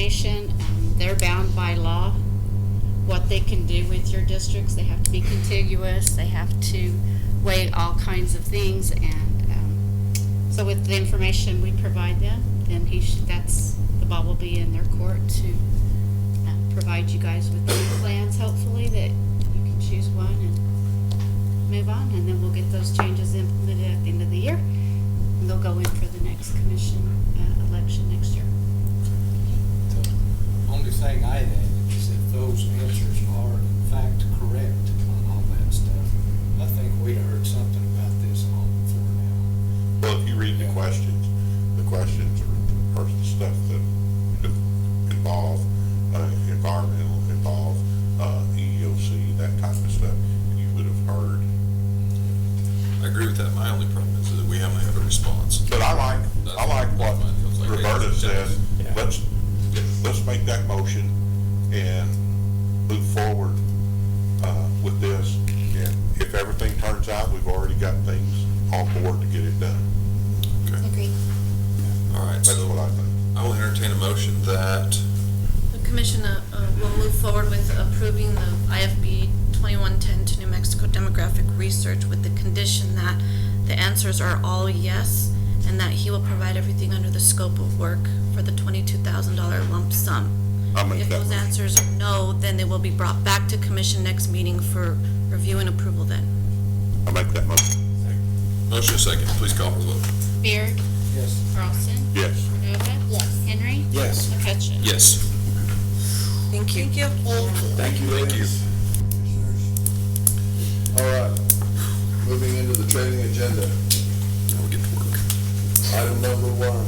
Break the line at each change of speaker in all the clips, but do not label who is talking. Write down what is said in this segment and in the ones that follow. information. Um, They're bound by law, what they can do with your districts. They have to be contiguous, they have to weigh all kinds of things, and um, so with the information we provide them, then he should, that's, the ball will be in their court to uh, provide you guys with new plans, hopefully, that you can choose one and move on, and then we'll get those changes implemented at the end of the year. And they'll go in for the next commission uh, election next year.
The only thing I'd add is if those answers are in fact correct on all that stuff, I think we'd heard something about this long before now.
Well, if you read the questions, the questions are, are stuff that involve, uh, environmental, involve, uh, EEOC, that type of stuff, you would have heard.
I agree with that. My only problem is that we haven't had a response.
But I like, I like what Roberta says, let's, let's make that motion and move forward, uh, with this. And if everything turns out, we've already got things on board to get it done.
Okay.
Agreed.
All right,
That's what
so
I think.
I will entertain a motion that,
The commission uh, uh, will move forward with approving the IFB 2110 to New Mexico demographic research with the condition that the answers are all yes, and that he will provide everything under the scope of work for the $22,000 lump sum.
I'll make
If
that
those
motion.
answers are no, then they will be brought back to commission next meeting for review and approval then.
I make that motion.
motion is second, please call for the vote.
Beard,
Yes.
Carlson,
Yes.
Cordova. Yes. Henry.
Yes.
McCutcheon.
Yes.
Thank you. Thank you.
Thank you. Thank you.
All right, moving into the training agenda,
Now we get to work.
item number one.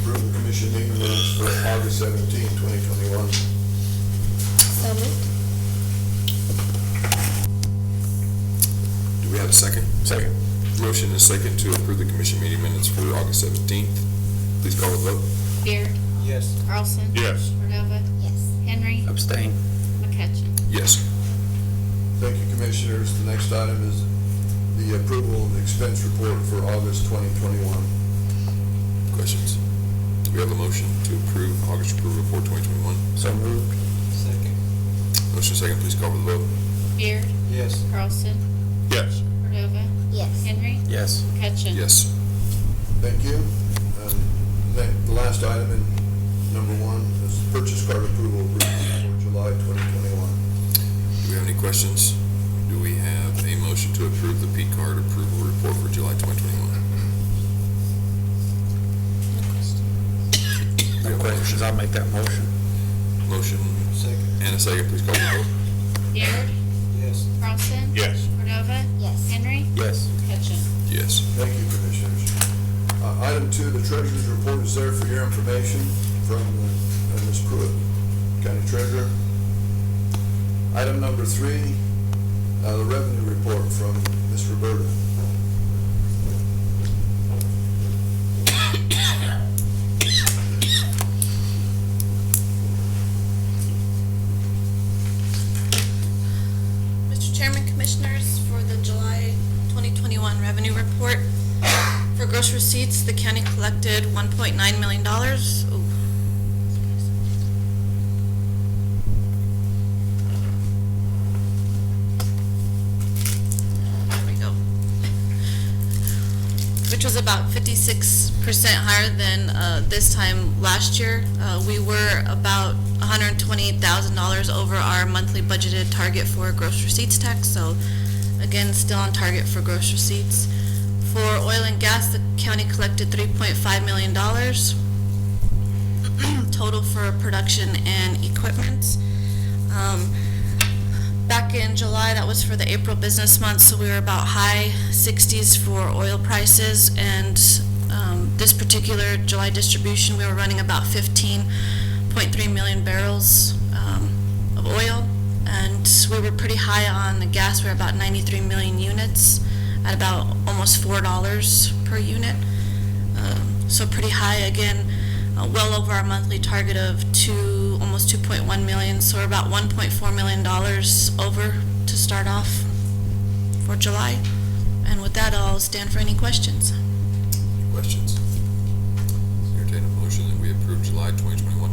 Approve the commission meeting minutes for August 17, 2021.
Do we have a second? Second. Motion is second to approve the commission meeting minutes for August seventeenth. Please call the vote.
Beard,
Yes.
Carlson.
Yes.
Cordova. Yes. Henry.
Abstain.
McCutcheon.
Yes.
Thank you, commissioners. The next item is the approval of the expense report for August 2021.
Questions? Do we have a motion to approve August approval report twenty twenty-one?
So moved.
Second.
Motion second, please call for the vote.
Beard,
Yes.
Carlson,
Yes.
Cordova. Yes. Henry.
Yes.
McCutcheon.
Yes.
Thank you. Um, that- The last item in number one is purchase card approval for July 2021.
Do we have any questions? Do we have a motion to approve the P card approval report for July twenty twenty-one?
No questions, I'll make that motion.
Motion
Second.
and a second, please call the vote.
Beard,
Yes.
Carlson.
Yes.
Cordova. Yes. Henry.
Yes.
McCutcheon.
Yes.
Thank you, Commissioners. Uh, Item two, the treasurer's report is there for your information from uh, Ms. Pruitt, County Treasurer. Item number three, uh, the revenue report from Ms. Roberta.
Mr. Chairman, Commissioners, for the July 2021 revenue report, for gross receipts, the county collected $1.9 million. Ooh. There we go. Which was about 56% higher than uh, this time last year. Uh, We were about $128,000 over our monthly budgeted target for gross receipts tax, so again, still on target for gross receipts. For oil and gas, the county collected $3.5 million total for production and equipment. Um, Back in July, that was for the April business month, so we were about high 60s for oil prices. And um, this particular July distribution, we were running about 15.3 million barrels um, of oil. And we were pretty high on the gas, we were about 93 million units at about almost $4 per unit. Um, So pretty high, again, uh, well over our monthly target of two, almost 2.1 million, so we're about 1.4 million dollars over to start off for July. And with that, I'll stand for any questions.
Questions? Entertain a motion that we approve July twenty twenty-one